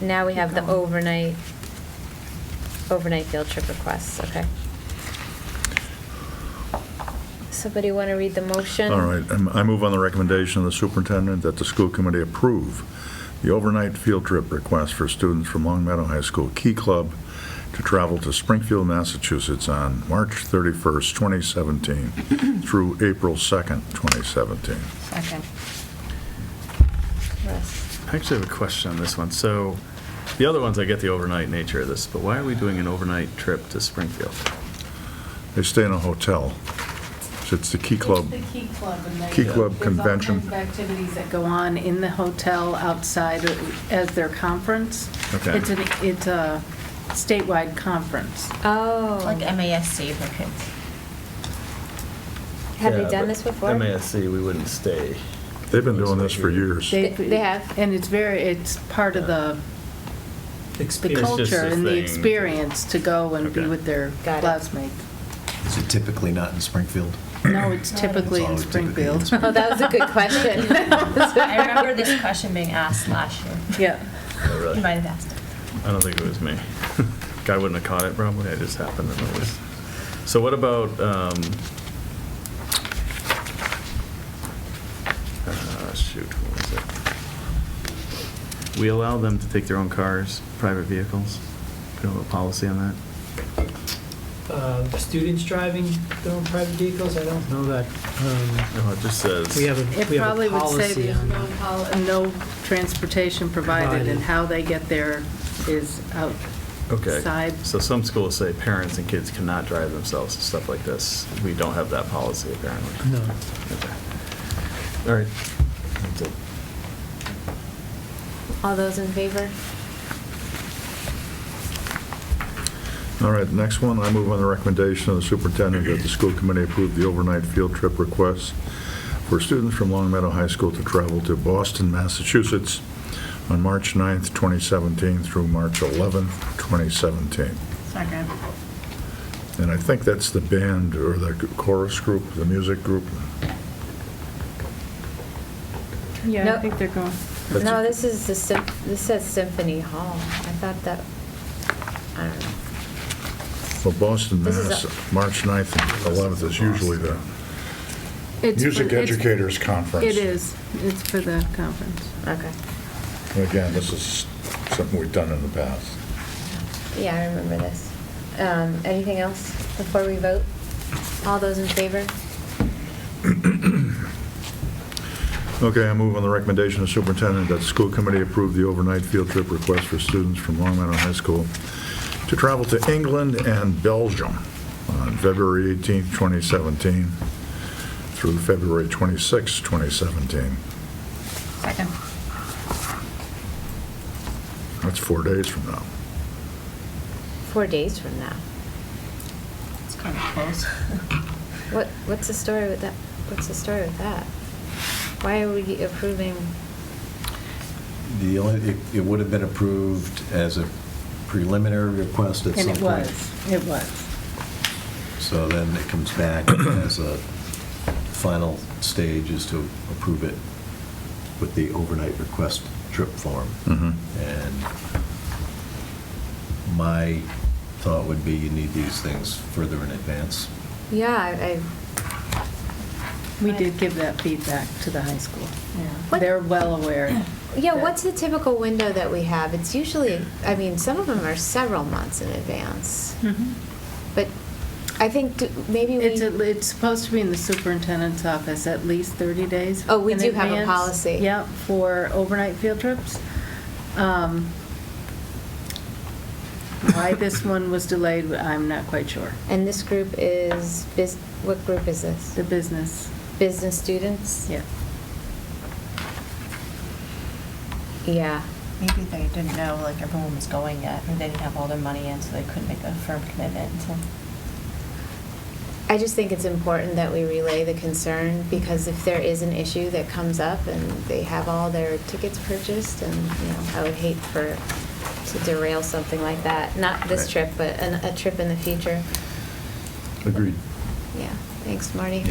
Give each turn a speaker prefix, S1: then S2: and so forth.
S1: Now we have the
S2: Keep going.
S1: overnight, overnight field trip requests, okay. Somebody want to read the motion?
S3: All right, um, I move on the recommendation of the superintendent that the school committee approve the overnight field trip request for students from Long Meadow High School Key Club to travel to Springfield, Massachusetts on March 31st, 2017 through April 2nd, 2017.
S2: Second.
S1: Russ.
S4: I actually have a question on this one. So, the other ones, I get the overnight nature of this, but why are we doing an overnight trip to Springfield?
S3: They stay in a hotel. So It's the Key Club.
S5: It's the Key Club. and they-
S3: Key Club convention.
S5: There's all kinds of activities that go on in the hotel outside as their conference.
S4: Okay.
S5: It's an It's a statewide conference.
S1: Oh,
S2: Like MASC for kids.
S1: have they done this before?
S4: MASC, we wouldn't stay.
S3: They've been doing this for years.
S1: They- they have.
S5: And it's very, it's part of the the culture and the experience to go and be
S4: Okay.
S5: with their
S1: Got it.
S5: classmates.
S6: Is it typically not in Springfield?
S5: No, it's typically in
S6: always typically in
S5: Springfield.
S1: Oh, that was a good question.
S2: I remember this question being asked last year.
S5: Yeah.
S3: uh,
S2: You might have asked it.
S4: I don't think it was me. Guy wouldn't have caught it probably. I just happened to notice. So what about, um, uh, shoot, what was it? We allow them to take their own cars, private vehicles? We don't have a policy on that?
S7: Uh, Students driving their own private vehicles, I don't know that. um,
S4: No, it just says.
S7: We have
S5: It
S7: a, we have
S5: probably
S7: a
S5: would say
S7: policy
S5: there's
S7: on
S5: no,
S7: that.
S5: pol- no transportation provided,
S7: Provided.
S5: and how they get there is
S4: Okay,
S5: outside.
S4: so some schools say parents and kids cannot drive themselves and stuff like this. We don't have that policy apparently.
S7: No.
S4: Okay. All right. That's it.
S1: All those in favor?
S3: All right, next one, I move on the recommendation of the superintendent that the school committee approve the overnight field trip request for students from Long Meadow High School to travel to Boston, Massachusetts on March 9th, 2017 through March 11th, 2017.
S2: Second.
S3: And I think that's the band or the chorus group, the music group.
S5: Yeah,
S1: No.
S5: I think they're going.
S3: That's-
S1: No, this is the, sym- this says Symphony Hall. I thought that, I don't know.
S3: Well, Boston,
S1: This is
S3: Mass,
S1: a-
S3: March 9th and 11th is usually the
S5: It's for-
S3: music
S5: it's-
S3: educators conference.
S5: It is. It's for the conference.
S1: Okay.
S3: Again, this is something we've done in the past.
S1: Yeah, I remember this. Um, Anything else before we vote? All those in favor?
S3: Okay, I move on the recommendation of superintendent that the school committee approve the overnight field trip request for students from Long Meadow High School to travel to England and Belgium on February 18th, 2017 through February 26th, 2017.
S2: Second.
S3: That's four days from now.
S1: Four days from now.
S2: It's kind of close.
S1: What, what's the story with that? What's the story with that? Why are we approving?
S6: The only, it- it would have been approved as a preliminary request at some
S5: And
S6: point.
S5: it was, it was.
S6: So then it comes back as a final stage is to approve it with the overnight request trip form.
S4: Mm-hmm.
S3: Mhm.
S6: And my thought would be you need these things further in advance.
S1: Yeah, I,
S5: We did give that feedback to the high school.
S1: What-
S5: They're well aware.
S1: I- yeah,
S5: that-
S1: what's the typical window that we have? It's usually, I mean, some of them are several months in advance.
S5: Mhm.
S1: But I think d- maybe we.
S5: It's, at- it's supposed to be in the superintendent's office at least 30 days.
S1: Oh, we
S5: in
S1: do have a
S5: advance.
S1: policy.
S5: Yep, for overnight field trips. Um, Why this one was delayed, I'm not quite sure.
S1: And this group is, bus- what group is this?
S5: The business,
S1: Business students?
S5: yeah.
S1: Yeah.
S2: Maybe they didn't know, like, everyone was going yet, or they didn't have all their money in, so they couldn't make a firm commitment until.
S1: I just think it's important that we relay the concern because if there is an issue that comes up and they have all their tickets purchased and, you know, I would hate for, to derail something like that. Not this
S6: Right.
S1: trip, but an- a trip in the future.
S6: Agreed.
S1: Yeah. Thanks, Marty.